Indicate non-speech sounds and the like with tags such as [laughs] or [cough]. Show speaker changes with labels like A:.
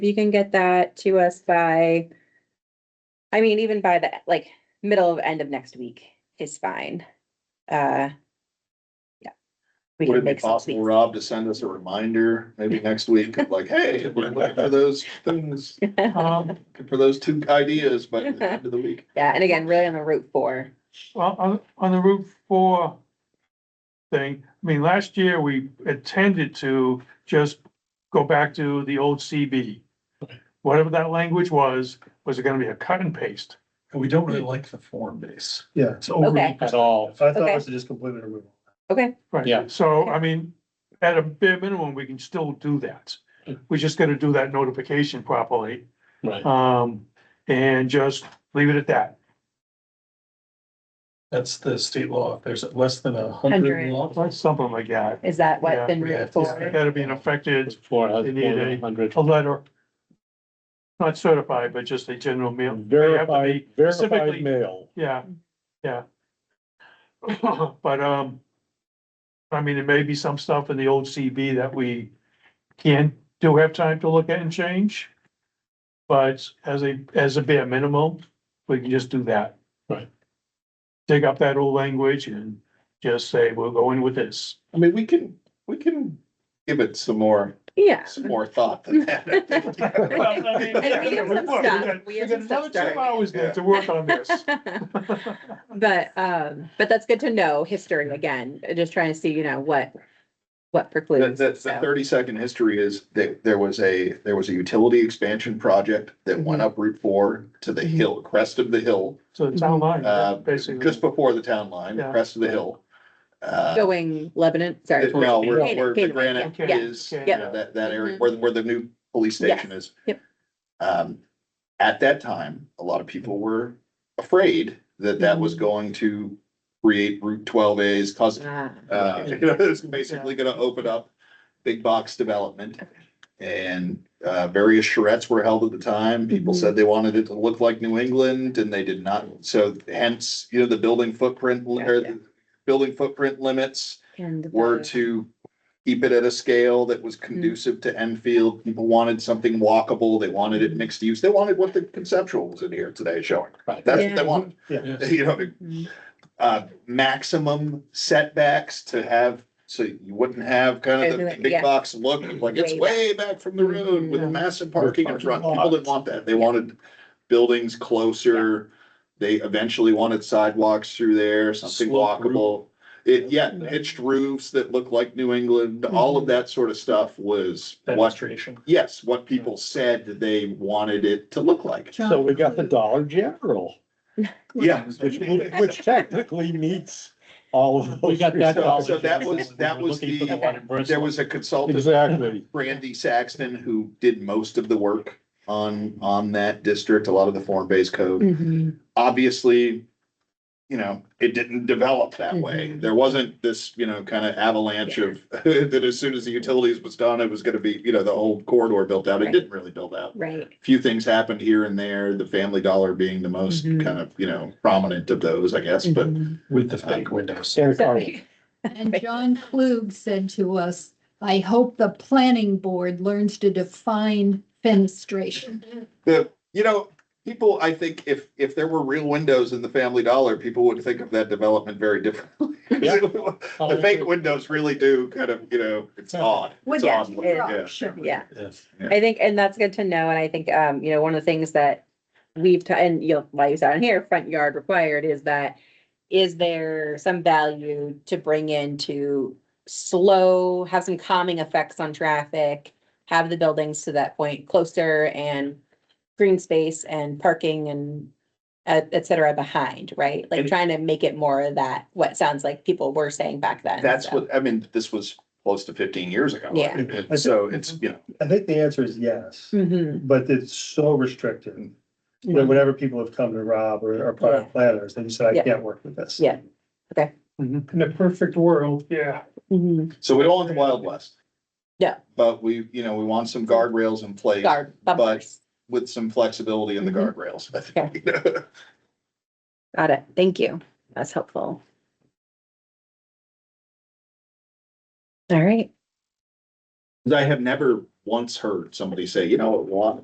A: you can get that to us by, I mean, even by the, like, middle of, end of next week is fine. Uh, yeah. We
B: Would
A: can
B: it be
A: make some
B: possible,
A: tweaks.
B: Rob, to send us a reminder, maybe next week, of like, hey, we're looking for those things,
C: [laughs] Um,
B: looking for those two ideas by the end of the week?
A: [laughs] Yeah, and again, really on the Route Four.
C: on, on, on the Route Four thing, I mean, last year we intended to just go back to the old CB. Whatever that language was, was it gonna be a cut and paste?
D: We don't really like the form base.
E: Yeah,
D: It's
C: Mhm.
D: overly
A: Okay.
D: At all.
E: so I thought
A: Okay.
E: it was just completely removal.
A: Okay,
C: Right.
D: Yeah.
C: So, I mean, at a bare minimum, we can still do that. We just gotta do that notification properly,
D: Hmm. Right.
C: um, and just leave it at that.
D: That's the state law. If there's less than a hundred
A: Hundred.
D: law.
C: Like something like that.
A: is that
C: Yeah,
A: what then
D: we
A: Route
D: have to-
A: Four?
C: That'd be an affected
D: Four
C: They need a-
D: hundred.
C: a letter. Not certified, but just a general mail. They have to
D: Verified,
C: be- specifically-
D: verified mail.
C: Yeah, yeah. [laughs] But, um, I mean, there may be some stuff in the old CB that we can, do have time to look at and change. But as a, as a bare minimum, we can just do that.
D: Right.
C: Dig up that old language and just say, we're going with this.
B: I mean, we can, we can give it some more,
C: [laughs]
A: Yeah.
B: some more thought than [laughs] that.
A: And we have some stuff, we have some stuff
C: Another two
A: started.
C: hours then to work on this.
A: But, um, but that's good to know, history again, uh, just trying to see, you know, what, what
B: The,
A: precludes.
B: the, the
A: so.
B: thirty second history is that there was a, there was a utility expansion project that went
A: Mm-hmm.
B: up Route four to the hill, crest of the hill,
C: So the town line,
B: uh,
C: basically.
A: Mm-hmm.
B: just before the town line,
C: Yeah.
B: crest of the hill. Uh,
A: Going Lebanon, sorry.
B: It- No, where,
A: Canaan,
B: where the
A: Canaan,
B: granite
C: yeah, yeah,
B: is,
C: okay.
B: you know, that, that area, where, the- where the new police
A: Yes,
B: station is.
A: yep.
B: Um, at that time, a lot of people were afraid that that was
A: Mhm.
B: going to create Route twelve A's cousin.
A: Ah,
B: Uh, [laughs] you know, it's basically gonna open up big box development. And, uh, various charrettes were held at the time. People
A: Mhm.
B: said they wanted it to look like New England and they did not. So hence, you know, the building footprint, li- or
A: Gotcha.
B: the building footprint limits
A: and the-
B: were to keep it at a scale that was conducive to Enfield. People wanted something walkable. They wanted it mixed use. They wanted what the conceptual was in here today showing.
D: Right.
B: That's what
A: Yeah.
B: they wanted, [laughs]
E: Yeah,
B: you know,
A: Mhm.
B: uh, maximum setbacks to have, so you wouldn't have kind of the
A: Everything, yeah.
B: big box look of like it's way back from the road with
C: Yeah.
B: massive parking in front.
D: Parking lot.
B: People didn't want that. They wanted buildings closer. They eventually wanted sidewalks through there, something
D: Sloped roof.
B: walkable. It, yeah, pitched roofs that looked like New England, all of that sort of stuff was what,
D: Demonstration.
B: yes, what people said that they wanted it to look like.
D: So we got the Dollar General,
B: Yeah.
D: which, which technically meets all of those. We got
B: that Dollar So that General was- when we that were was looking for the the- one There was a consultant
D: Exactly.
B: Brandy Saxton, who did most of the work on, on that district, a lot of the form-based code.
A: Mhm.
B: Obviously, you know, it didn't develop that way.
A: Mhm.
B: There wasn't this, you know, kind of avalanche of, [laughs] that as soon as the utilities was done, it was gonna be, you know, the whole corridor built out. It
A: Right.
B: didn't really build out.
A: Right,
B: Few things happened here and there, the Family Dollar being the most
A: Mhm.
B: kind of, you know, prominent of those, I guess, but
A: Mhm.
D: With the
B: fake
E: Um,
D: windows.
A: So-
F: [laughs] And John Klug said to us, I hope the planning board learns to define fenestration.
B: The, you know, people, I think if, if there were real windows in the Family Dollar, people would think of that development very differently. [laughs]
D: Yeah.
B: The fake windows really do kind of, you know, Oh, it's odd.
F: Well,
B: It's
F: yeah,
B: odd looking,
A: yeah.
B: yeah.
A: [laughs] yeah.
B: Yeah.
A: I think, and that's good to know, and I think, um, you know, one of the things that we've, ta- and you know, why you said on here, front yard required, is that is there some value to bring in to slow, have some calming effects on traffic, have the buildings to that point closer and green space and parking and et, et cetera behind, right? Like
B: And-
A: trying to make it more of that, what sounds like people were saying back then.
B: That's
A: so.
B: what, I mean, this was close to fifteen years ago.
A: Yeah.
B: And So it's, you know,
E: I think the answer is yes,
A: Mhm.
E: but it's so restrictive. When- Whenever people have come to Rob or our prior
A: Yeah.
E: planners, they said,
A: Yeah.
E: I can't work with this.
A: Yeah.
B: Mm-hmm.
C: In a perfect world, yeah.
A: Mhm.
B: so we don't want the Wild West.
A: Yeah.
B: But we, you know, we want some guardrails in place
A: Guard bumpers.
B: with some flexibility in the
A: Mhm.
B: guardrails. I [laughs] think.
A: Got it. Thank you. That's helpful. All right.
B: I have never once heard somebody say, you know, what,